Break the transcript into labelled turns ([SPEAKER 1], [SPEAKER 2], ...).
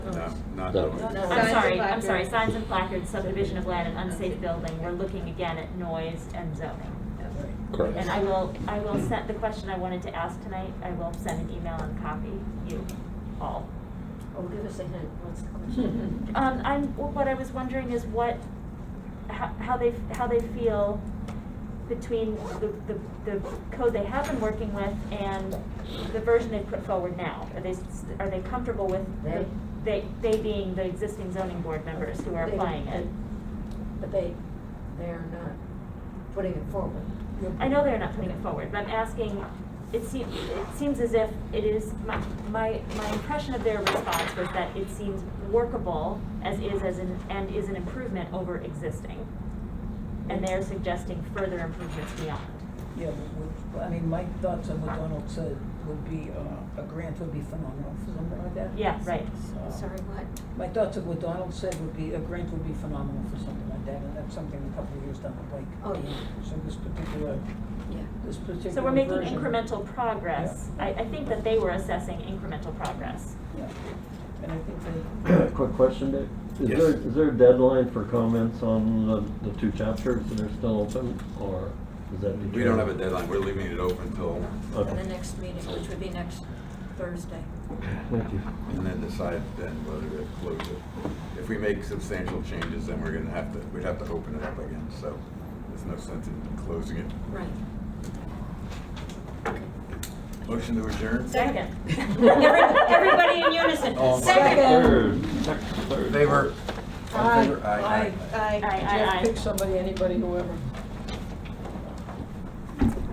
[SPEAKER 1] not
[SPEAKER 2] No.
[SPEAKER 1] doing it.
[SPEAKER 3] No,
[SPEAKER 4] I'm
[SPEAKER 3] signs
[SPEAKER 4] sorry,
[SPEAKER 3] and
[SPEAKER 4] I'm sorry,
[SPEAKER 3] placards.
[SPEAKER 4] signs and placards, subdivision of land and unsafe building, we're looking again at noise and zoning. And I
[SPEAKER 2] Correct.
[SPEAKER 4] will, I will send, the question I wanted to ask tonight, I will send an email and copy you all.
[SPEAKER 3] Oh, give us a hint, what's the question?
[SPEAKER 4] Um, I'm, well, what I was wondering is what, how, how they, how they feel between the, the, the code they have been working with and the version they put forward now. Are they, s- are they comfortable with, the- they, they being the existing zoning board members who are
[SPEAKER 3] They-
[SPEAKER 4] applying it?
[SPEAKER 3] But they, they're not putting it forward.
[SPEAKER 4] I know they're not putting it forward, but I'm asking, it seems, it seems as if it is, my, my, my impression of their response was that it seems workable as is, as an, and is an improvement over existing. And they're suggesting further improvements beyond.
[SPEAKER 5] Yeah, but we- I mean, my thoughts on what Donald said would be, uh, a grant would be phenomenal for something like that.
[SPEAKER 4] Yeah, right.
[SPEAKER 5] So-
[SPEAKER 3] Sorry, what?
[SPEAKER 5] My thoughts of what Donald said would be, a grant would be phenomenal for something like that, and that's something a couple of years down the
[SPEAKER 3] Oh,
[SPEAKER 5] pike.
[SPEAKER 3] yeah,
[SPEAKER 5] So this particular,
[SPEAKER 3] yeah.
[SPEAKER 5] this particular version.
[SPEAKER 4] So we're making incremental progress. I, I think that they were assessing incremental progress.
[SPEAKER 5] Yeah, and I think that,
[SPEAKER 2] Quick question, Dave. Is
[SPEAKER 1] Yes.
[SPEAKER 2] there, is there a deadline for comments on the, the two chapters that are still open, or is that?
[SPEAKER 1] We don't have a deadline, we're leaving it open until,
[SPEAKER 3] For the next meeting, which would be next Thursday.
[SPEAKER 2] Thank you.
[SPEAKER 1] and then decide then whether to close it. If we make substantial changes, then we're gonna have to, we'd have to open it up again, so there's no sense in closing it.
[SPEAKER 3] Right.
[SPEAKER 1] Motion to adjourn?
[SPEAKER 4] Second.
[SPEAKER 3] Every- Everybody in unison.
[SPEAKER 1] All in favor?
[SPEAKER 2] Third, third.
[SPEAKER 1] Favor? All in favor?
[SPEAKER 5] Aye.
[SPEAKER 1] Aye.
[SPEAKER 4] Aye, aye, aye.
[SPEAKER 5] Jeff, pick somebody, anybody, whoever.